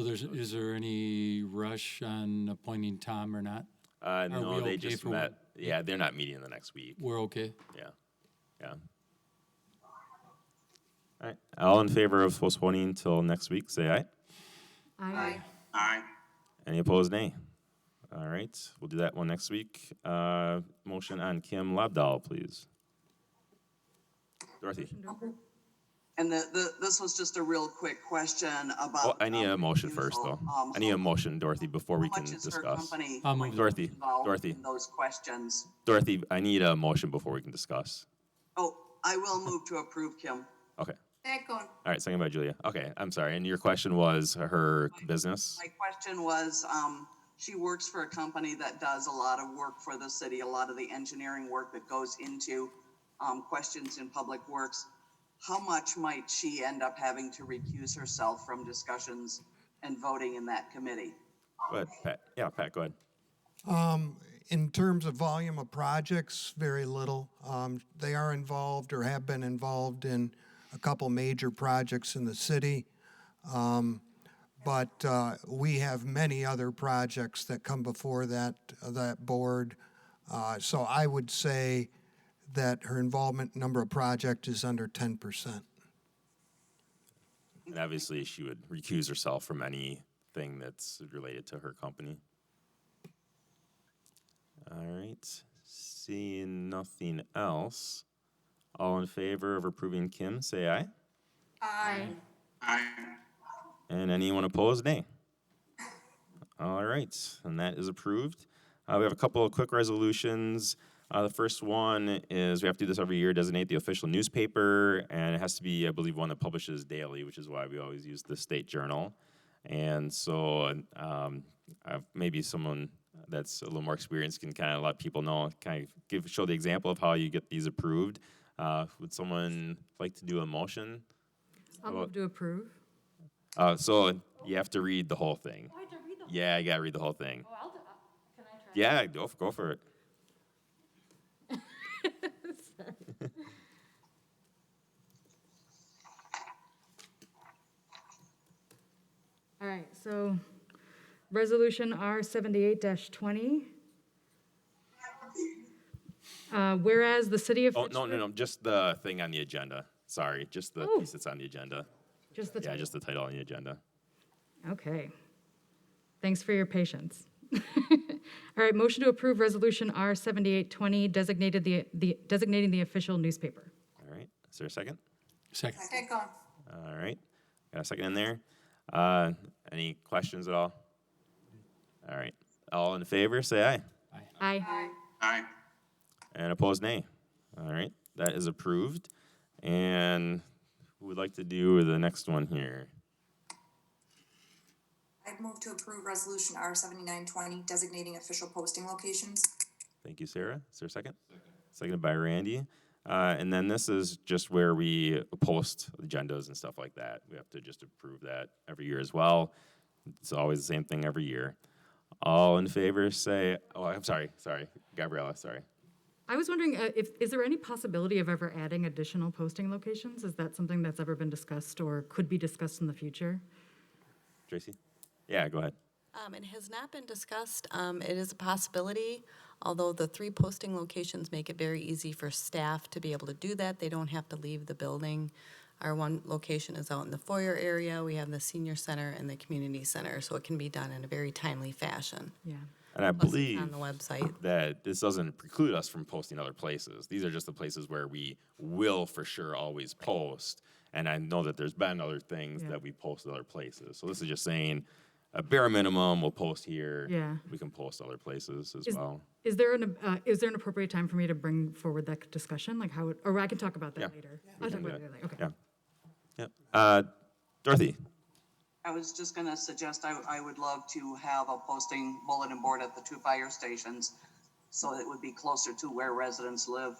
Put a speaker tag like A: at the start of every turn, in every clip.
A: So there's, is there any rush on appointing Tom or not?
B: Uh, no,
A: we
B: they
A: okay
B: just
A: for one-
B: met. Yeah, they're not meeting in the next week.
A: We're okay.
B: Yeah, yeah. All right. All in favor of postponing till next week, say aye.
C: Aye.
D: Aye.
B: Any opposed, nay. All right, we'll do that one next week. Uh, motion on Kim Lobdahl, please. Dorothy.
D: And the, the, this was just a real quick question about.
B: Oh, I need a motion first, though.
D: refusal. Um,
B: I need
D: how-
B: a motion, Dorothy, before we
D: how
B: can
D: much is her
B: discuss.
D: company
A: I'll move.
B: Dorothy,
D: involved
B: Dorothy,
D: in Those questions.
B: Dorothy, I need a motion before we can discuss.
D: Oh, I will move to approve, Kim.
B: Okay.
C: Second.
B: All right, second by Julia. Okay, I'm sorry. And your question was her business?
D: My question was, um, she works for a company that does a lot of work for the city, a lot of the engineering work that goes into, um, questions in public works. How much might she end up having to recuse herself from discussions and voting in that committee?
B: Go ahead, Pat. Yeah, Pat, go ahead.
E: In terms of volume of projects, very little. Um, They are involved or have been involved in a couple major projects in the city. Um, But uh, we have many other projects that come before that, that board. Uh, So I would say that her involvement number of project is under 10%.
B: And obviously, she would recuse herself from anything that's related to her company. All right, seeing nothing else. All in favor of approving Kim, say aye.
C: Aye.
D: Aye.
B: And anyone opposed, nay. All right, and that is approved. Uh, we have a couple of quick resolutions. Uh, the first one is we have to do this every year, designate the official newspaper, and it has to be, I believe, one that publishes daily, which is why we always use the state journal. And so um, I've, maybe someone that's a little more experienced can kind of let people know, kind of give show the example of how you get these approved. Uh, would someone like to do a motion?
C: I'll move to approve.
B: Uh, so you have to read the whole thing. yeah, Oh, I gotta read the whole thing. Oh,
F: I'll do, can I try?
B: Yeah, go f- go for it.
F: All right, so Resolution R seventy-eight twenty. Uh, whereas the city of
B: Oh no,
F: Fitchburg.
B: no, no, just the thing on the agenda. Sorry, just the
F: Oh.
B: piece that's on the agenda.
F: Just the
B: Yeah,
F: title.
B: just the title on the agenda.
F: Okay. Thanks for your patience. All right, motion to approve Resolution R seventy-eight twenty designated the, the, designating the official newspaper.
B: All right, is there a second?
A: Second.
C: Second.
B: All right, got a second in there. Uh, any questions at all? All right, all in favor, say aye.
F: Aye.
D: Aye.
B: And opposed, nay. All right, that is approved. And who would like to do the next one here?
G: I'd move to approve resolution R seventy-nine twenty designating official posting locations.
B: Thank you, Sarah. Is there a second? Seconded by Randy. Uh, and then this is just where we post agendas and stuff like that. We have to just approve that every year as well. It's always the same thing every year. All in favor say, oh, I'm sorry, sorry, Gabriella, sorry.
F: I was wondering uh, if, is there any possibility of ever adding additional posting locations? Is that something that's ever been discussed or could be discussed in the future?
B: Tracy? Yeah, go ahead.
H: Um, It has not been discussed. Um, It is a possibility, although the three posting locations make it very easy for staff to be able to do that. They don't have to leave the building. Our one location is out in the foyer area. We have the senior center and the community center, so it can be done in a very timely fashion.
F: Yeah.
B: And I
H: Plus,
B: believe
H: it's on the website.
B: that this doesn't preclude us from posting other places. These are just the places where we will for sure always post. And I know that there's been other things
F: Yeah.
B: that we post other places. So this is just saying a bare minimum we'll post here.
F: Yeah.
B: We can post other places as
F: Is-
B: well.
F: Is there an, uh, is there an appropriate time for me to bring forward that discussion? Like how, it- or I can talk about
B: Yeah,
F: that later.
B: we
F: I'll
B: can
F: talk
B: do
F: about
B: that.
F: it later, okay.
B: Yeah. Yep. Uh, Dorothy.
D: I was just gonna suggest I, I would love to have a posting bulletin board at the two fire stations. So it would be closer to where residents live.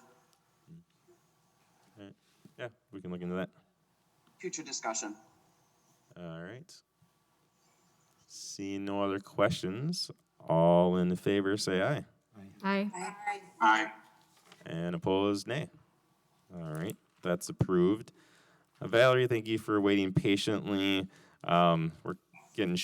B: Yeah, we can look into that.
D: Future discussion.
B: All right. Seeing no other questions, all in favor say aye.
F: Aye.
G: Aye.
D: Aye.
B: And opposed, nay. All right, that's approved. Uh, Valerie, thank you for waiting patiently. Um, we're getting